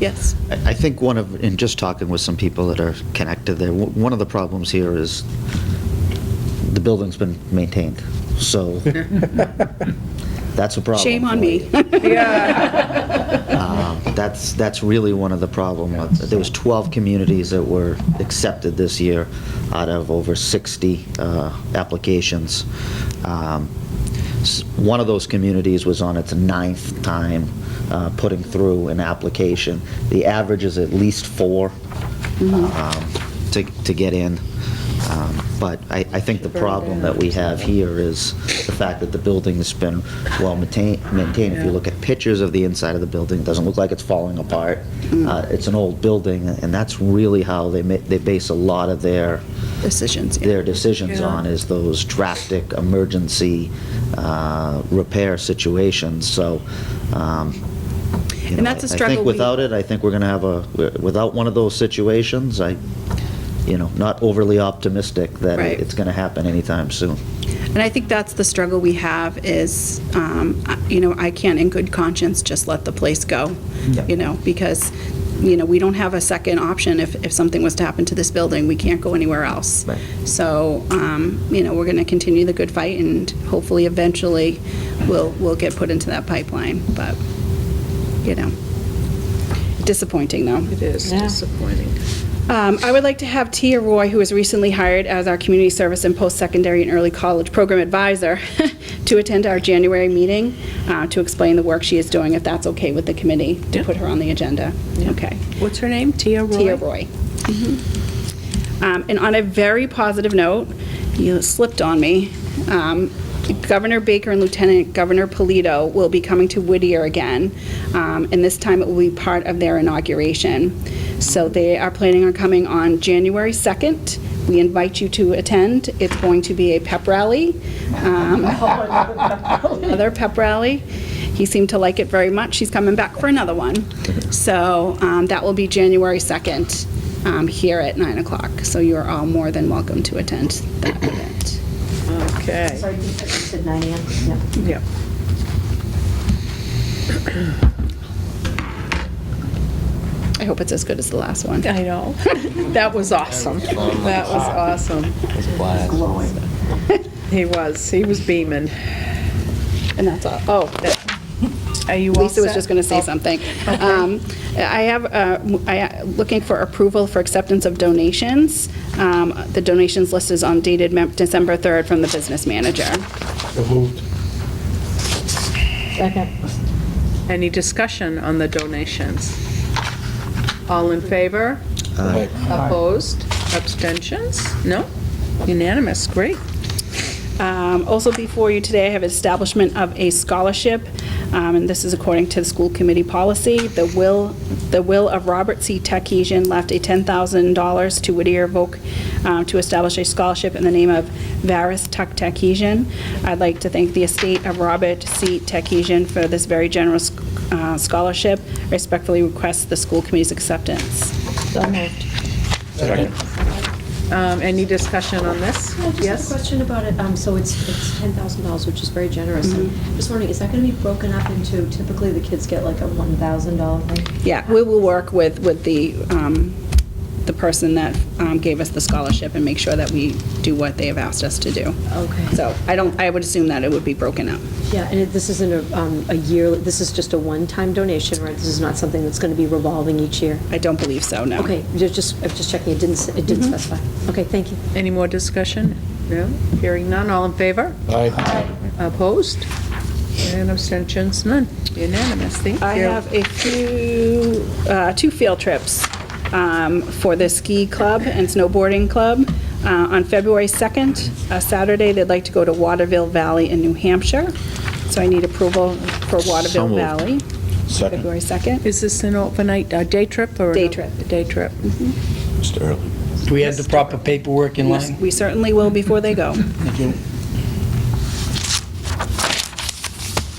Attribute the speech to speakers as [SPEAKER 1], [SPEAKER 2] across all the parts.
[SPEAKER 1] Yes.
[SPEAKER 2] I I think one of, in just talking with some people that are connected there, w- one of the problems here is the building's been maintained, so that's a problem.
[SPEAKER 1] Shame on
[SPEAKER 2] for
[SPEAKER 1] me.
[SPEAKER 2] you. Um, That's, that's really one of the problems. There was 12 communities that were accepted this year out of over 60 uh, applications. Um, s- One of those communities was on its ninth time uh, putting through an application. The average is at least four um, to to get in. Um, But I I think the problem that we have here is the fact that the building's been well maintain- maintained. If you look at pictures of the inside of the building, it doesn't look like it's falling apart. Uh, It's an old building, and that's really how they ma- they base a lot of their
[SPEAKER 1] Decisions, yeah.
[SPEAKER 2] their decisions on is those drastic emergency uh, repair situations, so. um,
[SPEAKER 1] And
[SPEAKER 2] you know,
[SPEAKER 1] that's a
[SPEAKER 2] I- I
[SPEAKER 1] struggle
[SPEAKER 2] think
[SPEAKER 1] we-
[SPEAKER 2] without it, I think we're going to have a, without one of those situations, I, you know, not overly optimistic that
[SPEAKER 1] Right.
[SPEAKER 2] it- it's going to happen anytime soon.
[SPEAKER 1] And I think that's the struggle we have is, um, I- you know, I can't in good conscience just let the place go,
[SPEAKER 2] Yeah.
[SPEAKER 1] you know, because, you know, we don't have a second option. If, if something was to happen to this building, we can't go anywhere else.
[SPEAKER 2] Right.
[SPEAKER 1] So, um, you know, we're going to continue the good fight and hopefully eventually we'll, we'll get put into that pipeline, but, you know, disappointing though.
[SPEAKER 3] It is disappointing.
[SPEAKER 1] Um, I would like to have Tia Roy, who was recently hired as our Community Service and Post-Secondary and Early College Program Advisor, to attend our January meeting uh, to explain the work she is doing, if that's okay with the committee, to
[SPEAKER 3] Yeah.
[SPEAKER 1] put her on the agenda. Okay.
[SPEAKER 3] What's her name? Tia Roy?
[SPEAKER 1] Tia Roy. Um, And on a very positive note, you slipped on me, um, Governor Baker and Lieutenant Governor Polito will be coming to Whittier again, um, and this time it will be part of their inauguration. So they are planning on coming on January 2nd. We invite you to attend. It's going to be a pep rally. um, Another pep rally. He seemed to like it very much. He's coming back for another one. So um, that will be January 2nd um, here at 9 o'clock. So you are all more than welcome to attend that event.
[SPEAKER 3] Okay,
[SPEAKER 4] Sorry, you said 9 AM? No.
[SPEAKER 3] yep.
[SPEAKER 1] I hope it's as good as the last one.
[SPEAKER 3] I know. That was awesome. That was awesome. He was, he was beaming.
[SPEAKER 1] And that's all. Oh, that-
[SPEAKER 3] Are you all
[SPEAKER 1] Lisa was
[SPEAKER 3] set?
[SPEAKER 1] just going to say
[SPEAKER 3] Oh,
[SPEAKER 1] something. Um, I have, uh, I, looking for approval for acceptance of donations. Um, The donations list is on dated Mem- December 3rd from the business manager.
[SPEAKER 5] So moved.
[SPEAKER 3] Any discussion on the donations? All in favor? Opposed? Abstentions? No? Unanimous, great.
[SPEAKER 1] Um, Also before you today, I have establishment of a scholarship, um, and this is according to the school committee policy. The will, the will of Robert C. Techesian left a $10,000 to Whittier Volk uh, to establish a scholarship in the name of Varus Tuck Techesian. I'd like to thank the estate of Robert C. Techesian for this very generous uh, scholarship. Respectfully request the school committee's acceptance.
[SPEAKER 3] Um, Any discussion on this?
[SPEAKER 4] Just a question about it, um, so it's, it's ten thousand dollars, which is very generous, I'm just wondering, is that gonna be broken up into, typically the kids get like a one thousand dollar thing?
[SPEAKER 1] Yeah, we will work with, with the, um, the person that um, gave us the scholarship and make sure that we do what they have asked us to do.
[SPEAKER 4] Okay.
[SPEAKER 1] So I don't, I would assume that it would be broken up.
[SPEAKER 4] Yeah, and it- this isn't a, um, a year, this is just a one-time donation, right, this is not something that's gonna be revolving each year?
[SPEAKER 1] I don't believe so, no.
[SPEAKER 4] Okay, ju- just, I'm just checking, it didn't, s- it didn't specify, okay, thank you.
[SPEAKER 3] Any more discussion? No? Hearing none, all in favor?
[SPEAKER 5] Aye.
[SPEAKER 3] Opposed? And abstentions, none. Unanimous, thank you.
[SPEAKER 1] I have a few, uh, two field trips um, for the ski club and snowboarding club. Uh, On February 2nd, a Saturday, they'd like to go to Waterville Valley in New Hampshire. So I need approval for Waterville
[SPEAKER 2] moved.
[SPEAKER 1] Valley.
[SPEAKER 5] Second.
[SPEAKER 1] February 2nd.
[SPEAKER 3] Is this an overnight, a day trip or? an-
[SPEAKER 1] Day trip.
[SPEAKER 3] A day trip.
[SPEAKER 5] Mr. Early.
[SPEAKER 6] Do we have the proper paperwork in line?
[SPEAKER 1] We certainly will before they go.
[SPEAKER 6] Thank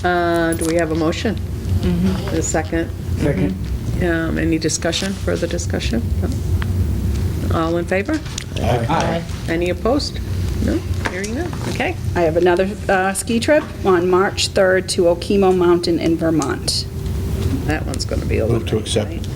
[SPEAKER 6] you.
[SPEAKER 3] Uh, Do we have a motion?
[SPEAKER 1] Mm-hmm.
[SPEAKER 3] A second?
[SPEAKER 6] Second.
[SPEAKER 3] Um, Any discussion, further discussion? No? All in favor?
[SPEAKER 6] Aye.
[SPEAKER 3] Any opposed? No? Hearing none, okay.
[SPEAKER 1] I have another uh, ski trip on March 3rd to Okemo Mountain in Vermont.
[SPEAKER 3] That one's going to be a little.
[SPEAKER 5] Move to accept.